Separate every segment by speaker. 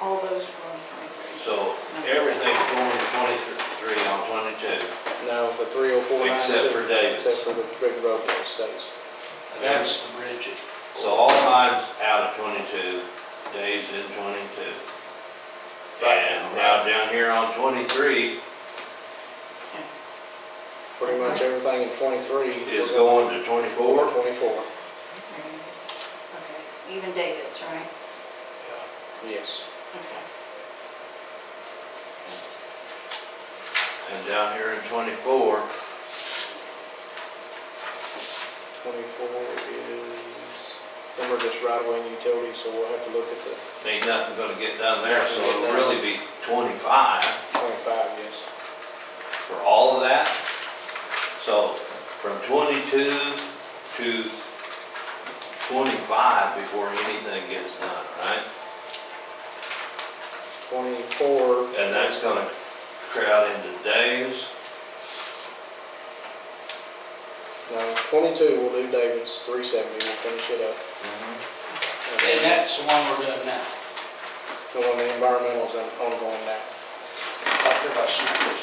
Speaker 1: all those were on twenty-three.
Speaker 2: So everything's going to twenty-three on twenty-two.
Speaker 3: No, the three oh four nine.
Speaker 2: Except for Davis.
Speaker 3: Except for the big road that stays.
Speaker 4: That's the bridge. at-
Speaker 2: So all times out of twenty-two, days in twenty-two. And now down here on twenty-three
Speaker 3: Pretty much everything in twenty-three.
Speaker 2: is going to twenty-four.
Speaker 3: Twenty-four,
Speaker 1: Okay, even David's, right?
Speaker 4: yeah.
Speaker 3: yes.
Speaker 1: Okay.
Speaker 2: And down here in twenty-four,
Speaker 3: Twenty-four is, then we're just right away in utilities, so we'll have to look at the
Speaker 2: ain't nothing gonna get done there, so it'll really be twenty-five
Speaker 3: twenty-five, yes.
Speaker 2: for all of that. So from twenty-two to twenty-five before anything gets done, right?
Speaker 3: Twenty-four.
Speaker 2: And that's gonna crowd into days.
Speaker 3: No, twenty-two will do David's, three seventy, we'll finish it up.
Speaker 2: Mm-hmm.
Speaker 4: And that's the one we're doing now.
Speaker 3: The one, the environmental's ongoing now.
Speaker 4: Up there by Snickers.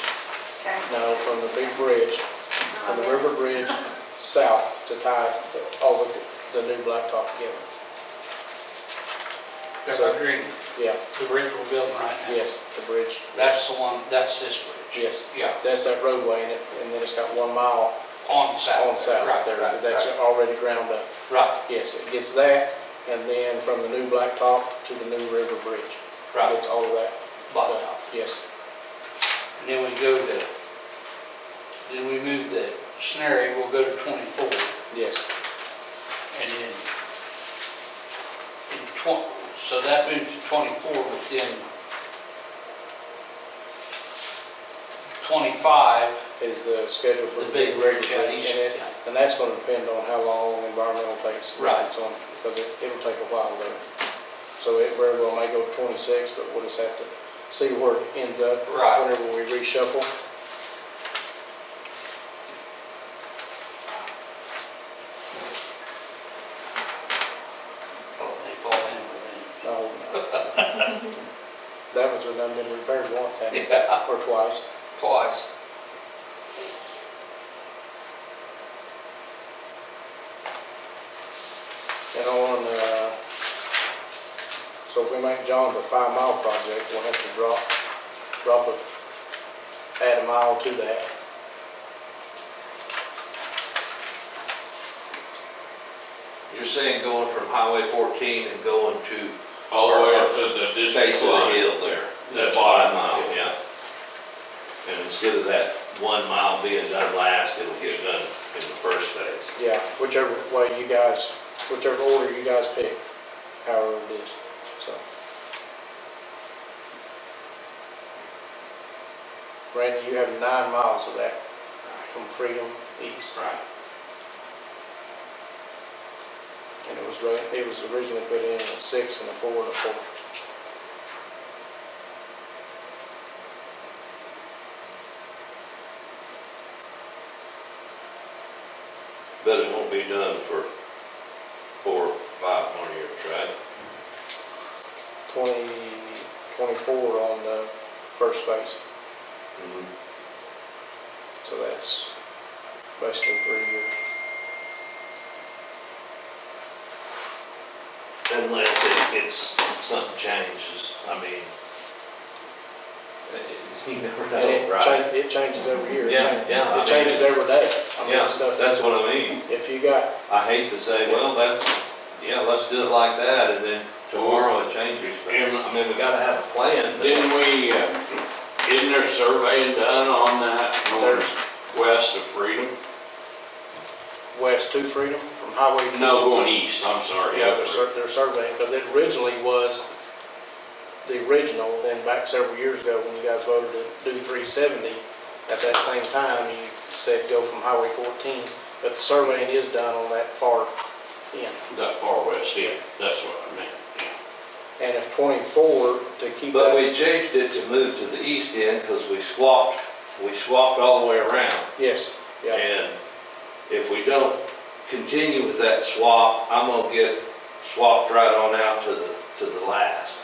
Speaker 1: Okay.
Speaker 3: No, from the big bridge, from the river bridge south to tie the- all of the, the new blacktop together.
Speaker 4: Pepper Green,
Speaker 3: Yeah,
Speaker 4: the bridge we're building right now.
Speaker 3: yes, the bridge,
Speaker 4: That's the one, that's this bridge.
Speaker 3: yes.
Speaker 4: Yeah,
Speaker 3: That's that roadway and it, and then it's got one mile
Speaker 4: on south.
Speaker 3: on south
Speaker 4: Right,
Speaker 3: there,
Speaker 4: right,
Speaker 3: that's
Speaker 4: right,
Speaker 3: already ground up.
Speaker 4: Right,
Speaker 3: Yes, it gets that, and then from the new blacktop to the new river bridge.
Speaker 4: right,
Speaker 3: It's all of that.
Speaker 4: bottom out.
Speaker 3: Yes,
Speaker 4: And then we go to, then we move the scenario, we'll go to 24, and
Speaker 3: yes,
Speaker 4: then, in 20, so that moves to 24, but then 25,
Speaker 3: is the schedule for.
Speaker 4: the big
Speaker 3: river
Speaker 4: bridge out
Speaker 3: bridge,
Speaker 4: east.
Speaker 3: And it- and that's gonna depend on how long environmental takes.
Speaker 4: Right.
Speaker 3: It's on, because it, it'll take a while there. So it very well may go to twenty-six, but we'll just have to see where it ends up.
Speaker 4: Right.
Speaker 3: Whenever we reshuffle.
Speaker 4: Oh, they fall in with
Speaker 3: No, no. Oh. That one's done been repaired once,
Speaker 4: me.
Speaker 3: hasn't it?
Speaker 4: Yeah,
Speaker 3: Or twice.
Speaker 4: twice.
Speaker 3: And on, uh, so if we make John's a five mile project, we'll have to drop, drop a, add a mile to that.
Speaker 2: You're saying going from Highway fourteen and going to
Speaker 5: All the way up to the
Speaker 2: the face
Speaker 5: district
Speaker 2: of the
Speaker 5: line.
Speaker 2: hill there.
Speaker 5: That's
Speaker 2: Five
Speaker 5: fine.
Speaker 2: mile, yeah. And instead of that one mile being done last, it'll get done in the first phase.
Speaker 3: Yeah, whichever way you guys, whichever order you guys pick, however it is, so. Randy, you have nine miles of that from Freedom East.
Speaker 2: Right.
Speaker 3: And it was, ra- it was originally put in a six and a four and a four.
Speaker 2: But it won't be done for four, five more years, right?
Speaker 3: 20, 24 on the first phase,
Speaker 2: Mm-hmm.
Speaker 3: so that's basically three years.
Speaker 2: Unless it gets, something changes, I mean. it- You never
Speaker 3: And
Speaker 2: know,
Speaker 3: it
Speaker 2: right?
Speaker 3: cha- it changes every year. It
Speaker 2: Yeah,
Speaker 3: changes-
Speaker 2: yeah, I mean-
Speaker 3: It changes every day. I mean,
Speaker 2: Yeah,
Speaker 3: stuff-
Speaker 2: that's what I mean.
Speaker 3: If you got,
Speaker 2: I hate to say, well, that's, yeah, let's do it like that, and then tomorrow it changes, but, I mean, we gotta have a plan. but-
Speaker 5: Didn't we, uh, isn't there surveying done on that north west of Freedom?
Speaker 3: west to Freedom from Highway.
Speaker 5: No, going east, I'm sorry,
Speaker 3: Yeah,
Speaker 5: yeah.
Speaker 3: they're sur- they're surveying, because it originally was the original, then back several years ago, when you guys voted to do 370, at that same time, you said go from Highway 14, but the surveying is done on that far end.
Speaker 5: That far west, yeah, that's what I meant, yeah.
Speaker 3: And if 24 to keep
Speaker 2: But
Speaker 3: that,
Speaker 2: we changed it to move to the east end, cause we swapped, we swapped all the way around.
Speaker 3: yes, yeah,
Speaker 2: And if we don't continue with that swap, I'm gonna get swapped right on out to the, to the last.